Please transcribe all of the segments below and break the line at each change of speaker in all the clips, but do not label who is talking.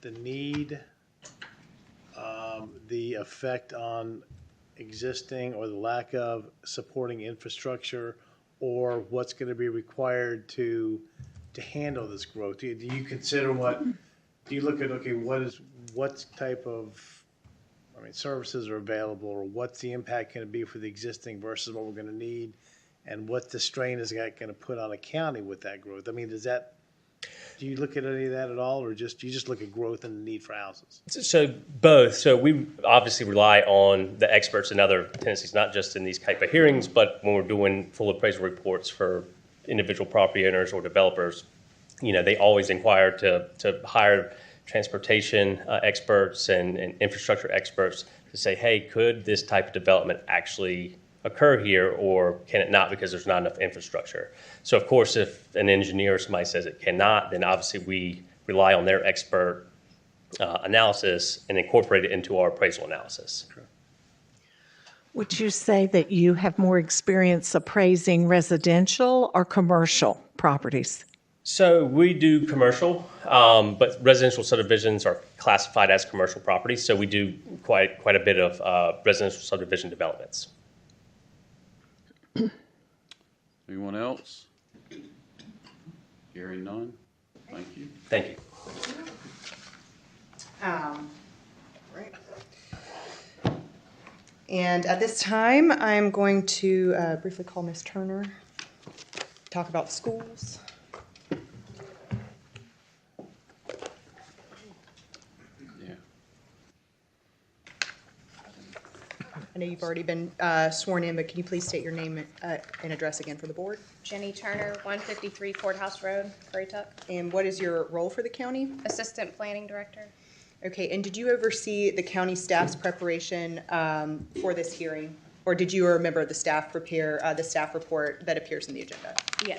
the need, um, the effect on existing or the lack of supporting infrastructure, or what's going to be required to, to handle this growth? Do you- do you consider what, do you look at, okay, what is, what type of, I mean, services are available, or what's the impact going to be for the existing versus what we're going to need? And what the strain is that going to put on a county with that growth? I mean, does that do you look at any of that at all, or just you just look at growth and the need for houses?
So both. So we obviously rely on the experts in other tenancies, not just in these type of hearings, but when we're doing full appraisal reports for individual property owners or developers. You know, they always inquire to, to hire transportation uh, experts and, and infrastructure experts to say, hey, could this type of development actually occur here or can it not because there's not enough infrastructure? So of course, if an engineer or somebody says it cannot, then obviously we rely on their expert uh, analysis and incorporate it into our appraisal analysis.
Would you say that you have more experience appraising residential or commercial properties?
So we do commercial, um, but residential subdivisions are classified as commercial properties. So we do quite quite a bit of uh, residential subdivision developments.
Anyone else? Hearing none, thank you.
Thank you.
Um, right. And at this time, I'm going to uh, briefly call Ms. Turner, talk about schools.
Yeah.
I know you've already been uh, sworn in, but can you please state your name uh, and address again for the board?
Jenny Turner, 153 Ford House Road, Currituck,
And what is your role for the county?
Assistant Planning Director.
Okay, and did you oversee the county staff's preparation um, for this hearing? Or did you or a member of the staff prepare uh, the staff report that appears in the agenda?
Yes.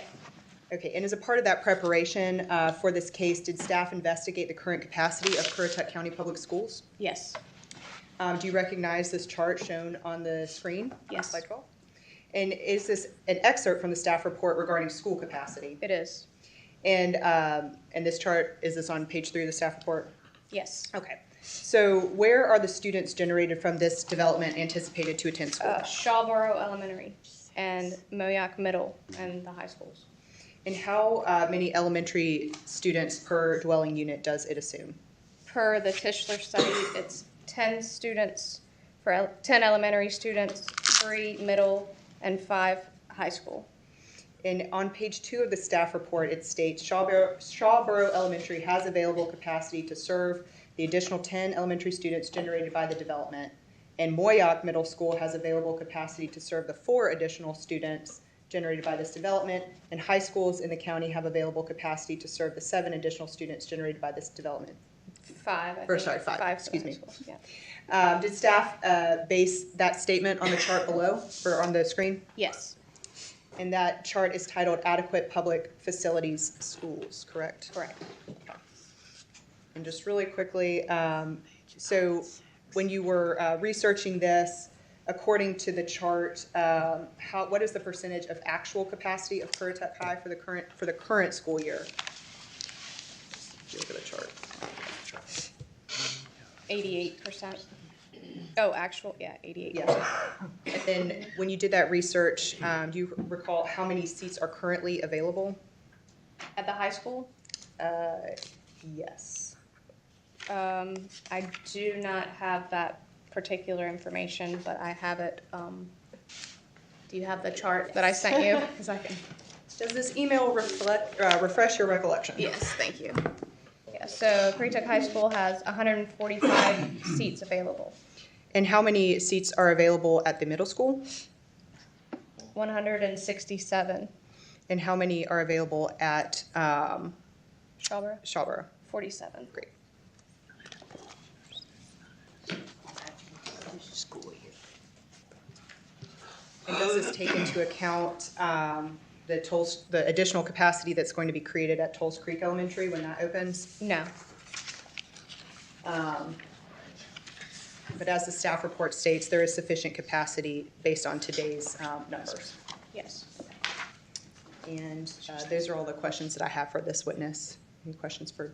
Okay, and as a part of that preparation uh, for this case, did staff investigate the current capacity of Currituck County Public Schools?
Yes.
Um, Do you recognize this chart shown on the screen?
Yes.
Slide 12. And is this an excerpt from the staff report regarding school capacity?
It is.
And, um, and this chart, is this on page three of the staff report?
Yes.
Okay, so where are the students generated from this development anticipated to attend school?
Uh, Shawboro Elementary and Moayak Middle and the high schools.
And how uh, many elementary students per dwelling unit does it assume?
Per the Tischler study, it's 10 students, for el- 10 elementary students, three middle, and five high school.
And on page two of the staff report, it states Shawboro, Shawboro Elementary has available capacity to serve the additional ten elementary students generated by the development. And Moyoc Middle School has available capacity to serve the four additional students generated by this development. And high schools in the county have available capacity to serve the seven additional students generated by this development.
Five, I think.
Or sorry, five,
for
excuse
the high
me.
school, yeah.
Um, did staff, uh, base that statement on the chart below or on the screen?
Yes,
And that chart is titled adequate public facilities schools, correct?
correct.
And just really quickly, um, so when you were uh, researching this, according to the chart, um, how, what is the percentage of actual capacity of Currituck High for the current, for the current school year? If you Look at the chart.
88%. Oh, actual, yeah, 88%.
Yeah. And then when you did that research, um, do you recall how many seats are currently available?
At the high school,
Yes.
um, I do not have that particular information, but I have it, um, do you have the chart that I sent you? Because I can,
Does this email reflect, uh, refresh your recollection?
yes, thank you. Yeah, so Currituck High School has hundred and forty-five seats available,
And how many seats are available at the middle school?
one hundred and sixty-seven.
And how many are available at um,
Shawboro,
Shawboro?
forty-seven.
Great. And does this take into account um, the tolls, the additional capacity that's going to be created at Tolls Creek Elementary when that opens?
No,
But as the staff report states, there is sufficient capacity based on today's um, numbers.
yes.
And uh, those are all the questions that I have for this witness. Any questions for